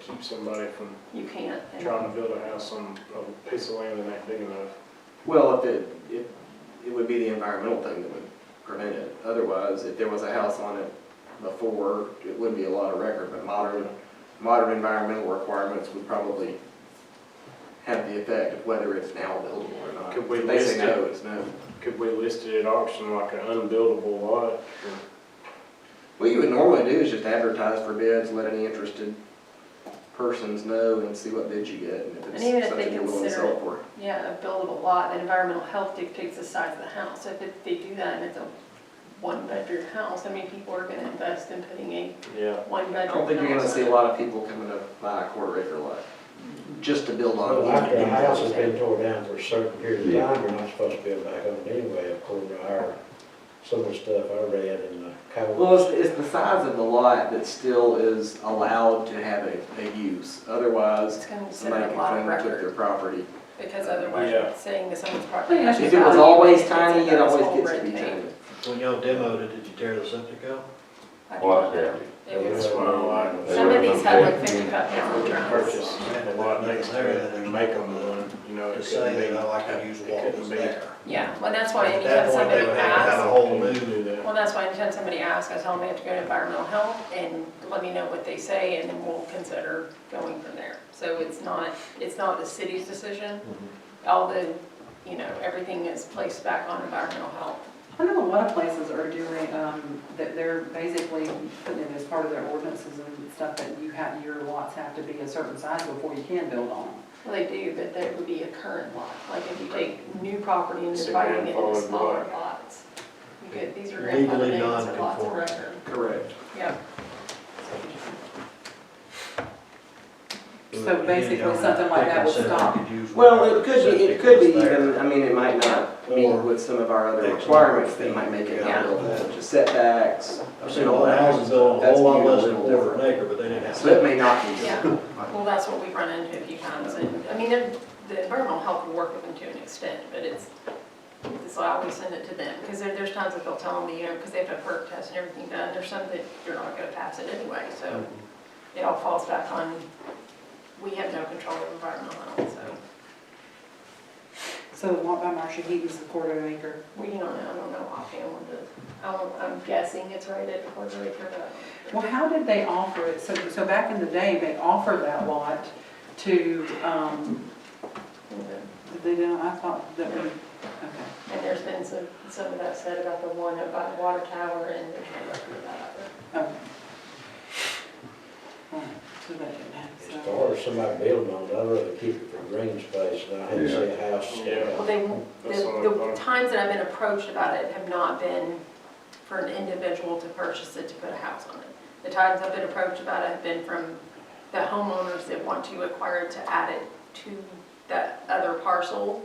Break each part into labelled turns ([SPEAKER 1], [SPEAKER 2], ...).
[SPEAKER 1] keep somebody from
[SPEAKER 2] You can't. and-
[SPEAKER 1] trying to build a house on a piece of land that ain't big enough.
[SPEAKER 3] Well, if it, if, it would be the environmental thing that would prevent it. Otherwise, if there was a house on it before, it wouldn't be a lot of record, but modern, modern environmental requirements would probably have the effect of whether it's now buildable or not.
[SPEAKER 1] Could we
[SPEAKER 3] If They
[SPEAKER 1] list
[SPEAKER 3] say
[SPEAKER 1] it?
[SPEAKER 3] no, it's no.
[SPEAKER 1] Could we list it at auction like an unbuildable lot?
[SPEAKER 3] What you would normally do is just advertise for bids, let any interested persons know and see what bids you get and if
[SPEAKER 2] And even
[SPEAKER 3] it's
[SPEAKER 2] if they
[SPEAKER 3] something you're willing to
[SPEAKER 2] consider
[SPEAKER 3] sell
[SPEAKER 2] it-
[SPEAKER 3] for.
[SPEAKER 2] Yeah, a buildable lot, then environmental health dictates the size of the house. If it- they do that and it's a one-bedroom house, I mean, people are gonna invest in putting a
[SPEAKER 1] Yeah.
[SPEAKER 3] I
[SPEAKER 2] one-bedroom house.
[SPEAKER 3] don't think you're gonna see a
[SPEAKER 2] on it.
[SPEAKER 3] lot of people coming to buy a quarter acre lot, just to build on.
[SPEAKER 4] Well,
[SPEAKER 3] one
[SPEAKER 4] after a
[SPEAKER 3] acre.
[SPEAKER 4] house has been tore down for a certain period of time, you're not supposed to build back on it anyway, according to our, some of the stuff I read in the code.
[SPEAKER 3] Well, it's, it's the size of the lot that still is allowed to have a, a use,
[SPEAKER 2] It's
[SPEAKER 3] otherwise
[SPEAKER 2] gonna set
[SPEAKER 3] somebody
[SPEAKER 2] a
[SPEAKER 3] can
[SPEAKER 2] lot of
[SPEAKER 3] come and took their
[SPEAKER 2] record,
[SPEAKER 3] property.
[SPEAKER 2] because otherwise
[SPEAKER 1] Yeah.
[SPEAKER 2] you're saying that someone's property. has
[SPEAKER 3] If it was
[SPEAKER 2] value,
[SPEAKER 3] always
[SPEAKER 2] it's
[SPEAKER 3] tiny, it
[SPEAKER 2] another whole
[SPEAKER 3] always gets to be
[SPEAKER 2] red tape.
[SPEAKER 3] tiny.
[SPEAKER 4] When y'all demoed it, did you tear the septic out?
[SPEAKER 2] I
[SPEAKER 5] Well,
[SPEAKER 2] don't know. It was-
[SPEAKER 1] That's what I like.
[SPEAKER 2] Some of these had like
[SPEAKER 5] Yeah.
[SPEAKER 2] fifty-five
[SPEAKER 1] We
[SPEAKER 2] pound
[SPEAKER 1] could
[SPEAKER 2] drums.
[SPEAKER 1] purchase a lot next to it and make them one, you know,
[SPEAKER 4] To
[SPEAKER 1] it
[SPEAKER 4] say
[SPEAKER 1] couldn't be.
[SPEAKER 4] that I like to use what was there.
[SPEAKER 2] Yeah, well, that's why
[SPEAKER 4] At
[SPEAKER 2] anytime
[SPEAKER 4] that point,
[SPEAKER 2] somebody
[SPEAKER 4] they would have to have a
[SPEAKER 2] asks,
[SPEAKER 4] whole
[SPEAKER 1] Couldn't
[SPEAKER 4] new,
[SPEAKER 1] do that.
[SPEAKER 2] well, that's why anytime somebody asks, I tell them they have to go to environmental health and let me know what they say and then we'll consider going from there. So it's not, it's not the city's decision, although, you know, everything is placed back on environmental health.
[SPEAKER 6] I know a lot of places are doing, um, that they're basically putting it as part of their ordinances and stuff that you have, your lots have to be a certain size before you can build on them.
[SPEAKER 2] Well, they do, but that would be a current lot, like if you take new property and
[SPEAKER 1] It's a
[SPEAKER 2] dividing it into
[SPEAKER 1] grandfathered
[SPEAKER 2] smaller
[SPEAKER 1] lot.
[SPEAKER 2] lots. You could, these are
[SPEAKER 4] Legally
[SPEAKER 2] grandfathered names, are lots of
[SPEAKER 4] non-conforming.
[SPEAKER 2] record,
[SPEAKER 3] Correct.
[SPEAKER 2] yeah.
[SPEAKER 6] So basically, something like that would stop.
[SPEAKER 3] Well, it could be, it could be even, I mean, it might not meet
[SPEAKER 4] Or-
[SPEAKER 3] with some of our other
[SPEAKER 4] X
[SPEAKER 3] requirements
[SPEAKER 4] amount
[SPEAKER 3] that
[SPEAKER 4] of
[SPEAKER 3] might make it
[SPEAKER 4] feet.
[SPEAKER 2] Yeah.
[SPEAKER 3] unbuildable, such as setbacks.
[SPEAKER 4] I've seen a lot of houses built on a
[SPEAKER 3] That's
[SPEAKER 4] whole lot
[SPEAKER 3] viewed
[SPEAKER 4] less
[SPEAKER 3] a
[SPEAKER 4] than a
[SPEAKER 3] little
[SPEAKER 4] quarter of
[SPEAKER 3] different.
[SPEAKER 4] an acre, but they didn't have.
[SPEAKER 3] So it may not be.
[SPEAKER 2] Yeah, well, that's what we've run into a few times, and, I mean, the the environmental health will work with them to an extent, but it's, it's why I always send it to them, because there, there's times that they'll tell me, you know, because they have to have perk tests and everything done, there's some that you're not gonna pass it anyway, so it all falls back on, we have no control of environmental health, so,
[SPEAKER 6] So the lot by Marcia Heaton's a quarter acre.
[SPEAKER 2] we don't know, I don't know offhand what the, I'm, I'm guessing it's right at quarter acre, but.
[SPEAKER 6] Well, how did they offer it? So, so back in the day, they offered that lot to, um, did they do, I thought that, we- okay.
[SPEAKER 2] And there's been some, some of that said about the one up by the water tower, and there's no record of that either.
[SPEAKER 6] okay. All right, so that didn't happen,
[SPEAKER 4] As
[SPEAKER 6] so-
[SPEAKER 4] far as somebody building on it, I'd rather keep it for green space, and I hate to see a house. stand
[SPEAKER 1] Yeah.
[SPEAKER 2] Well,
[SPEAKER 4] out.
[SPEAKER 2] they,
[SPEAKER 1] That's what I
[SPEAKER 2] the, the
[SPEAKER 1] thought.
[SPEAKER 2] times that I've been approached about it have not been for an individual to purchase it to put a house on it. The times I've been approached about it have been from the homeowners that want to acquire it to add it to that other parcel.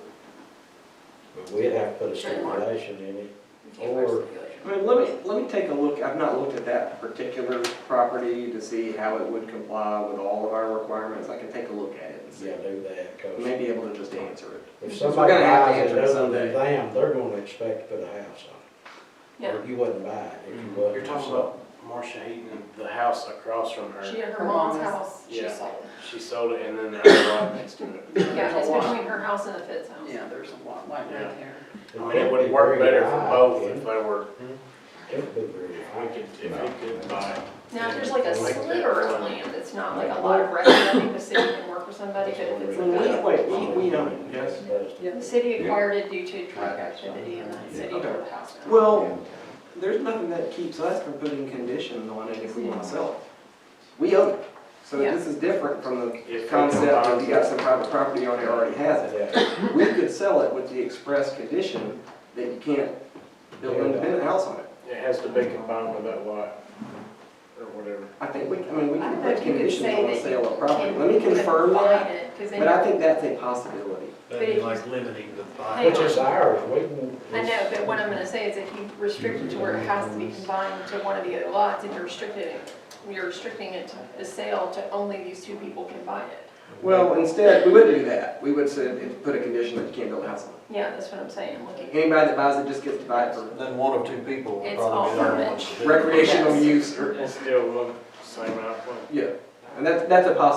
[SPEAKER 4] But We'd have to put a stipulation in it.
[SPEAKER 2] You can't put a
[SPEAKER 4] Or-
[SPEAKER 2] stipulation.
[SPEAKER 3] I mean, let me, let me take a look, I've not looked at that particular property to see how it would comply with all of our requirements, I can take a look at it and see.
[SPEAKER 4] Yeah, do that,
[SPEAKER 3] I
[SPEAKER 4] because
[SPEAKER 3] may be able to just answer it.
[SPEAKER 4] if
[SPEAKER 3] So we're
[SPEAKER 4] somebody
[SPEAKER 3] gonna have to
[SPEAKER 4] buys it
[SPEAKER 3] answer it
[SPEAKER 4] other
[SPEAKER 3] someday.
[SPEAKER 4] than them, they're gonna expect to put a house on it.
[SPEAKER 2] Yeah,
[SPEAKER 4] Or you wouldn't buy it if you wasn't.
[SPEAKER 1] You're talking about Marcia Heaton, the house across from
[SPEAKER 2] she
[SPEAKER 1] her.
[SPEAKER 2] had her
[SPEAKER 6] Her
[SPEAKER 2] mom's
[SPEAKER 6] mom's.
[SPEAKER 2] house, she
[SPEAKER 1] Yeah.
[SPEAKER 2] sold it.
[SPEAKER 1] She sold it and then the lot next to it.
[SPEAKER 2] Yeah,
[SPEAKER 6] There's
[SPEAKER 2] it's
[SPEAKER 6] a lot.
[SPEAKER 2] between her house and the Fitz house.
[SPEAKER 6] Yeah, there's a lot like
[SPEAKER 1] Yeah.
[SPEAKER 6] right there.
[SPEAKER 1] I mean, it would work better for both if they were,
[SPEAKER 4] It'd be very
[SPEAKER 1] we
[SPEAKER 4] high.
[SPEAKER 1] could, if we could buy it.
[SPEAKER 2] Now, if there's like a
[SPEAKER 1] Like that
[SPEAKER 2] sliver of
[SPEAKER 1] one.
[SPEAKER 2] land, it's not like a lot of record, I think the city can work with somebody, but if it's
[SPEAKER 3] Well,
[SPEAKER 2] like a
[SPEAKER 3] we- wait, we- we own it, yes?
[SPEAKER 2] The city acquired it due to truck activity and the city
[SPEAKER 3] Okay.
[SPEAKER 2] tore the house down.
[SPEAKER 3] Well, there's nothing that keeps us from putting conditions on it if we want to sell it. We own it, so this is different from
[SPEAKER 1] If
[SPEAKER 3] the
[SPEAKER 1] we
[SPEAKER 3] concept
[SPEAKER 1] combine-
[SPEAKER 3] of you got some private property owner that already has it.
[SPEAKER 4] Yeah,
[SPEAKER 3] We could sell it with the express condition that you can't build an independent house on it.
[SPEAKER 1] It has to be combined with that lot or whatever.
[SPEAKER 3] I think we, I mean, we
[SPEAKER 2] I
[SPEAKER 3] can
[SPEAKER 2] don't know
[SPEAKER 3] put
[SPEAKER 2] if you could
[SPEAKER 3] conditions
[SPEAKER 2] say
[SPEAKER 3] on the
[SPEAKER 2] that
[SPEAKER 3] sale of
[SPEAKER 2] you
[SPEAKER 3] property.
[SPEAKER 2] can.
[SPEAKER 3] Let me confirm
[SPEAKER 2] combine
[SPEAKER 3] that,
[SPEAKER 2] it, 'cause then
[SPEAKER 3] but I
[SPEAKER 2] you're-
[SPEAKER 3] think that's a possibility.
[SPEAKER 2] But
[SPEAKER 7] That'd be
[SPEAKER 2] if-
[SPEAKER 7] like limiting the buy.
[SPEAKER 4] which is ours, we can.
[SPEAKER 2] I know, but what I'm gonna say is if you restrict it to where it has to
[SPEAKER 3] Mm-hmm.
[SPEAKER 2] be combined to one of the other lots, and you're restricting it, you're restricting it to the sale to only these two people can buy it.
[SPEAKER 3] Well, instead, we wouldn't do that. We would say, put a condition that you can't build a house on it.
[SPEAKER 2] Yeah, that's what I'm saying, look at,
[SPEAKER 3] Anybody that buys it just gets to buy it for
[SPEAKER 7] Then one or two people
[SPEAKER 2] It's
[SPEAKER 7] would
[SPEAKER 2] all
[SPEAKER 7] probably be the only ones to do it.
[SPEAKER 3] recreational use or,
[SPEAKER 1] It's still one, same outfit.
[SPEAKER 3] yeah. And that's, that's a possibility